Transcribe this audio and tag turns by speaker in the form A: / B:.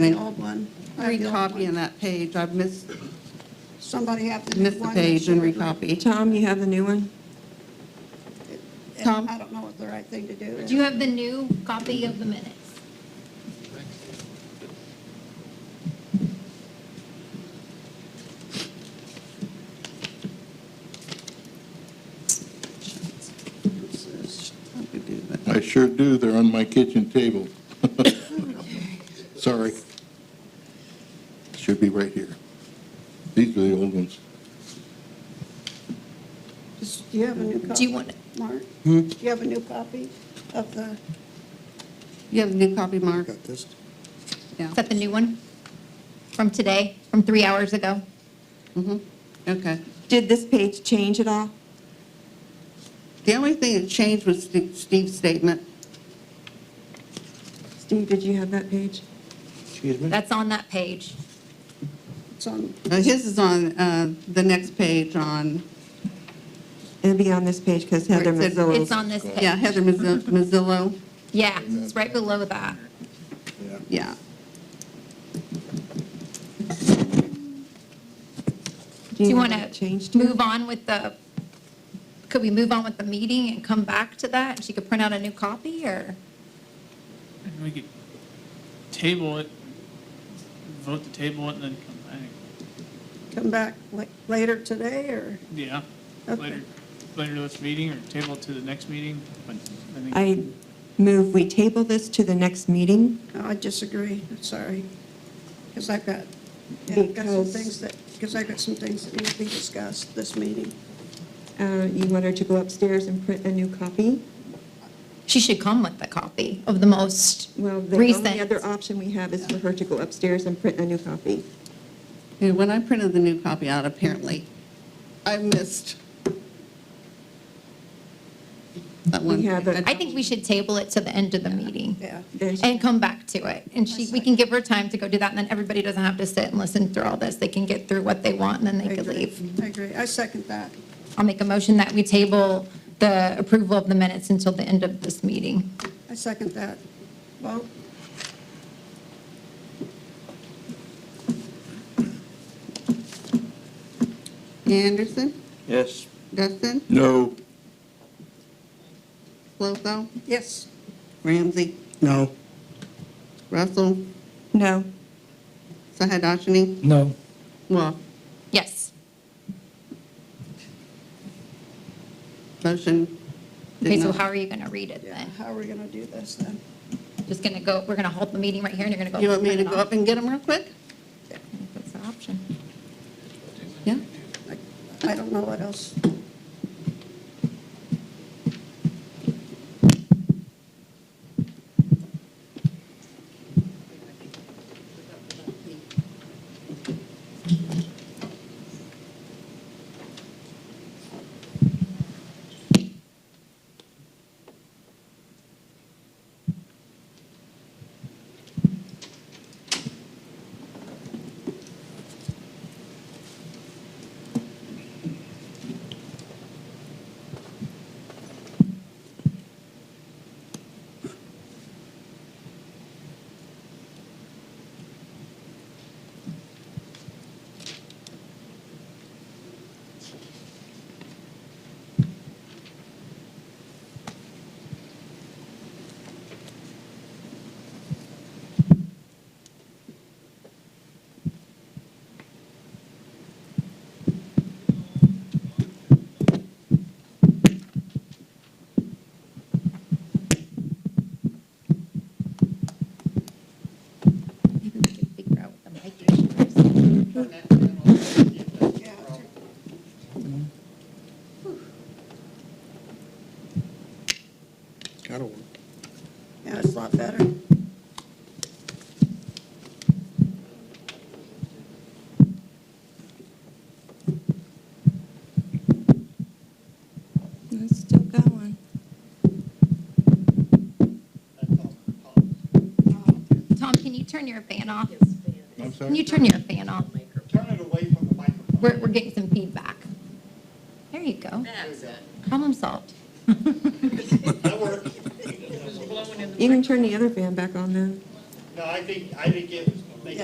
A: an old one. I have the old
B: Recopy on
A: one.
B: that page. I've missed,
A: Somebody have the new one.
B: missed the
A: that
B: page and
A: should-
B: recopy.
C: Tom, you have the new one?
B: Tom?
A: I don't know what the right thing to do is.
D: Do you have the new copy of the minutes?
E: I sure do, they're on my kitchen table. Sorry. Should be right here. These are the old ones.
A: Do you have a new copy?
D: Do you want-
A: Mark?
C: Hmm?
A: Do you have a new copy of the,
B: You have the new copy, Mark?
F: Got this?
B: Yeah.
D: Is that the new one? From today, from three hours ago?
B: Mhm. Okay.
C: Did this page change at all?
B: The only thing that changed was Steve- Steve's statement.
C: Steve, did you have that page?
F: Excuse me?
D: That's on that page.
A: it's on,
B: Uh, His is on uh, the next page on,
C: It'll be on this page because
B: Where it
C: Heather
B: said-
C: Mazzillo's.
D: It's on this page.
B: yeah, Heather Mazz- Mazzillo.
D: Yeah, it's right below that.
B: Yeah.
D: Do you want
C: know what it
D: to
C: changed to?
D: move on with the, could we move on with the meeting and come back to that? And She could print out a new copy or?
G: And we could table it, vote to table it, and then come back.
A: come back la- later today, or?
G: Yeah,
A: Okay.
G: later, later this meeting, or table it to the next meeting, but I think.
C: I move we table this to the next meeting.
A: No, I disagree, I'm sorry. Because I've got, yeah, I've got some
C: Because-
A: things that, because I've got some things that need to be discussed this meeting.
C: Uh, You want her to go upstairs and print a new copy?
D: She should come with the copy of the most
C: Well, the only
D: recent.
C: other option we have is for her to go upstairs and print a new copy.
B: Yeah, When I printed the new copy out, apparently, I missed that one.
C: We have a-
D: I think we should table it to the end of the meeting.
A: Yeah.
C: Then she-
D: And come back to it. And she, we can give her time to go do that, and then everybody doesn't have to sit and listen through all this. They can get through what they want, and then
A: I
D: they could
A: agree.
D: leave.
A: I agree, I second that.
D: I'll make a motion that we table the approval of the minutes until the end of this meeting.
A: I second that. Vote.
B: Uh, Anderson,
F: Yes.
B: Dustin,
E: No.
B: Clotho,
A: Yes.
B: Ramsey,
F: No.
B: Russell,
C: No.
B: Sahadashini,
F: No.
B: Well,
D: Yes.
B: Motion. did
D: Okay, so
B: not-
D: how are you going to read it
A: Yeah,
D: then?
A: how are we going to do this then?
D: Just going to go, we're going to hold the meeting right here, and you're going to go.
B: You want me
D: print
B: to
D: it
B: go
D: off?
B: up and get them real quick?
D: I think That's an option.
B: Yeah?
A: I- I don't know what else.
D: Maybe we can figure out what the mic issue is.
A: Yeah.
F: That'll work.
A: Yeah, it's a lot better.
C: It's still going.
D: Tom, can you turn your fan off?
E: I'm
D: Can you
E: sorry.
D: turn your fan off?
H: Turn it away from the microphone.
D: We're, we're getting some feedback. There you go. That's it. Problem solved.
H: That worked.
C: You can turn the other fan back on then.
H: No, I think, I think it was